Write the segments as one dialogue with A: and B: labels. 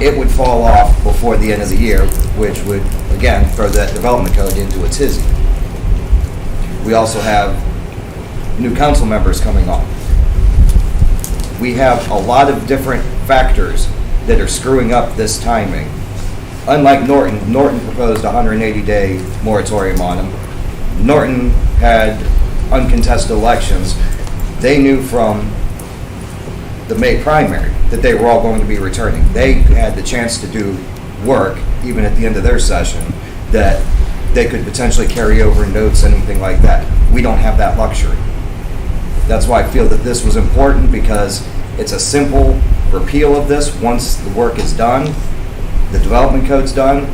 A: it would fall off before the end of the year, which would, again, throw that development code into a tizzy. We also have new council members coming on. We have a lot of different factors that are screwing up this timing. Unlike Norton, Norton proposed a 180-day moratorium on them. Norton had uncontested elections. They knew from the May primary that they were all going to be returning. They had the chance to do work, even at the end of their session, that they could potentially carry over notes, anything like that. We don't have that luxury. That's why I feel that this was important because it's a simple repeal of this once the work is done, the development code's done,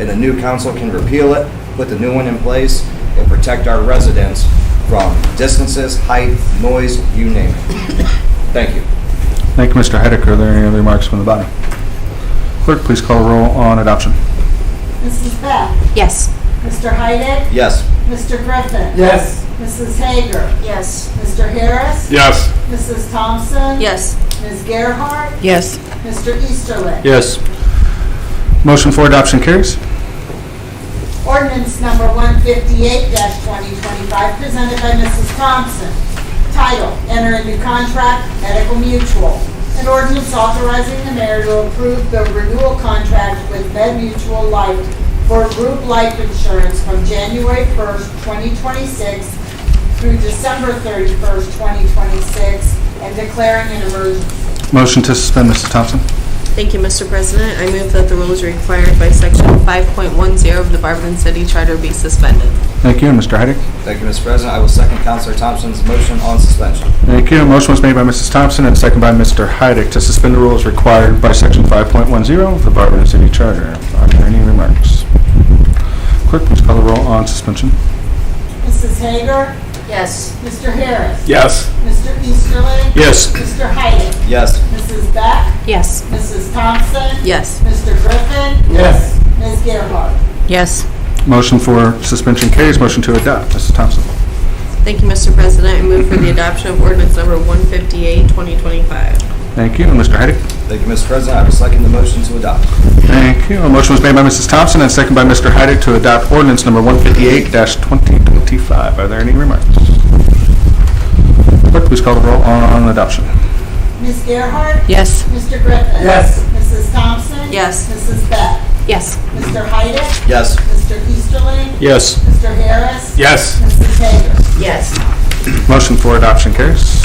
A: and the new council can repeal it, put the new one in place, and protect our residents from distances, height, noise, you name it. Thank you.
B: Thank you, Mr. Heidick. Are there any other remarks from the body? Clerk, please call the roll on adoption.
C: Mrs. Beck?
D: Yes.
C: Mr. Heidick?
A: Yes.
C: Mr. Griffin?
E: Yes.
C: Mrs. Hager?
D: Yes.
C: Mr. Harris?
E: Yes.
C: Mrs. Thompson?
D: Yes.
C: Ms. Gerhart?
D: Yes.
C: Mr. Easterling?
B: Yes. Motion for adoption carries.
C: Ordinance number 158-2025, presented by Mrs. Thompson. Title, enter a new contract, Medical Mutual. An ordinance authorizing the mayor to approve the renewal contract with Med Mutual Life for group life insurance from January 1st, 2026 through December 31st, 2026, and declaring an emergency.
B: Motion to suspend, Mrs. Thompson.
D: Thank you, Mr. President. I move that the rules required by Section 5.10 of the Barberton City Charter be suspended.
B: Thank you, Mr. Heidick.
A: Thank you, Mr. President. I will second Counselor Thompson's motion on suspension.
B: Thank you. Motion was made by Mrs. Thompson and second by Mr. Heidick to suspend the rules required by Section 5.10 of the Barberton City Charter. Are there any remarks? Clerk, please call the roll on suspension.
C: Mrs. Hager?
D: Yes.
C: Mr. Harris?
E: Yes.
C: Mr. Easterling?
B: Yes.
C: Mr. Heidick?
A: Yes.
C: Mrs. Beck?
D: Yes.
C: Mrs. Thompson?
D: Yes.
C: Mr. Griffin?
E: Yes.
C: Ms. Gerhart?
D: Yes.
B: Motion for suspension carries. Motion to adopt, Mrs. Thompson.
D: Thank you, Mr. President. I move for the adoption of ordinance number 158, 2025.
B: Thank you, and Mr. Heidick.
A: Thank you, Mr. President. I will second the motion to adopt.
B: Thank you. A motion was made by Mrs. Thompson and second by Mr. Heidick to adopt ordinance number 158-2025. Are there any remarks? Clerk, please call the roll on adoption.
C: Ms. Gerhart?
D: Yes.
C: Mr. Griffin?
E: Yes.
C: Mrs. Thompson?
D: Yes.
C: Mrs. Beck?
D: Yes.
C: Mr. Heidick?
A: Yes.
C: Mr. Easterling?
B: Yes.
C: Mr. Harris?
E: Yes.
C: Mrs. Hager?
D: Yes.
B: Motion for adoption carries.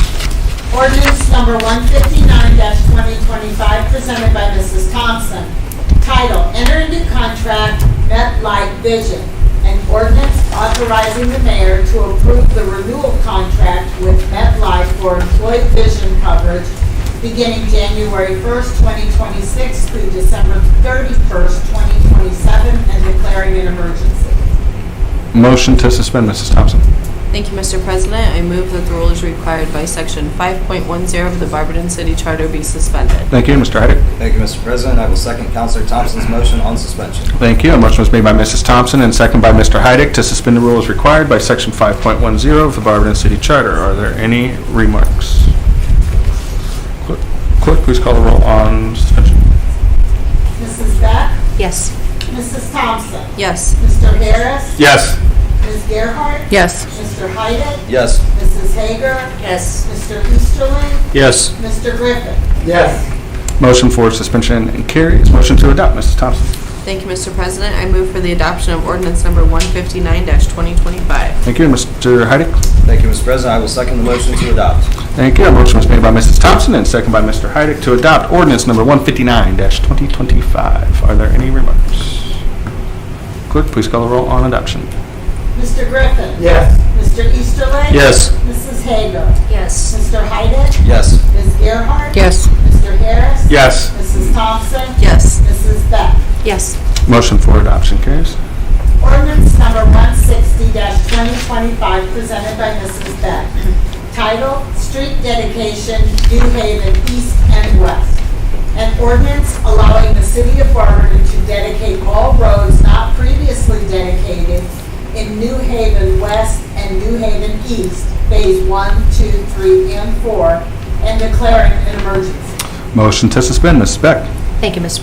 C: Ordinance number 159-2025, presented by Mrs. Thompson. Title, enter into contract MetLife Vision. An ordinance authorizing the mayor to approve the renewal contract with MetLife for employee vision coverage beginning January 1st, 2026 through December 31st, 2027, and declaring an emergency.
B: Motion to suspend, Mrs. Thompson.
D: Thank you, Mr. President. I move that the rules required by Section 5.10 of the Barberton City Charter be suspended.
B: Thank you, Mr. Heidick.
A: Thank you, Mr. President. I will second Counselor Thompson's motion on suspension.
B: Thank you. A motion was made by Mrs. Thompson and second by Mr. Heidick to suspend the rules required by Section 5.10 of the Barberton City Charter. Are there any remarks? Clerk- Clerk, please call the roll on suspension.
C: Mrs. Beck?
D: Yes.
C: Mrs. Thompson?
D: Yes.
C: Mr. Harris?
E: Yes.
C: Ms. Gerhart?
D: Yes.
C: Mr. Heidick?
A: Yes.
C: Mrs. Hager?
D: Yes.
C: Mr. Easterling?
B: Yes.
C: Mr. Griffin?
E: Yes.
B: Motion for suspension carries. Motion to adopt, Mrs. Thompson.
D: Thank you, Mr. President. I move for the adoption of ordinance number 159-2025.
B: Thank you, Mr. Heidick.
A: Thank you, Mr. President. I will second the motion to adopt.
B: Thank you. A motion was made by Mrs. Thompson and second by Mr. Heidick to adopt ordinance number 159-2025. Are there any remarks? Clerk, please call the roll on adoption.
C: Mr. Griffin?
E: Yes.
C: Mr. Easterling?
B: Yes.
C: Mrs. Hager?
D: Yes.
C: Mr. Heidick?
A: Yes.
C: Ms. Gerhart?
D: Yes.
C: Mr. Harris?
E: Yes.
C: Mrs. Thompson?
D: Yes.
C: Mrs. Beck?
D: Yes.
B: Motion for adoption carries.
C: Ordinance number 160-2025, presented by Mrs. Beck. Title, Street Dedication, New Haven East and West. An ordinance allowing the city of Barberton to dedicate all roads not previously dedicated in New Haven West and New Haven East, Phase 1, 2, 3, and 4, and declaring an emergency.
B: Motion to suspend, Mrs. Beck.
D: Thank you, Mr.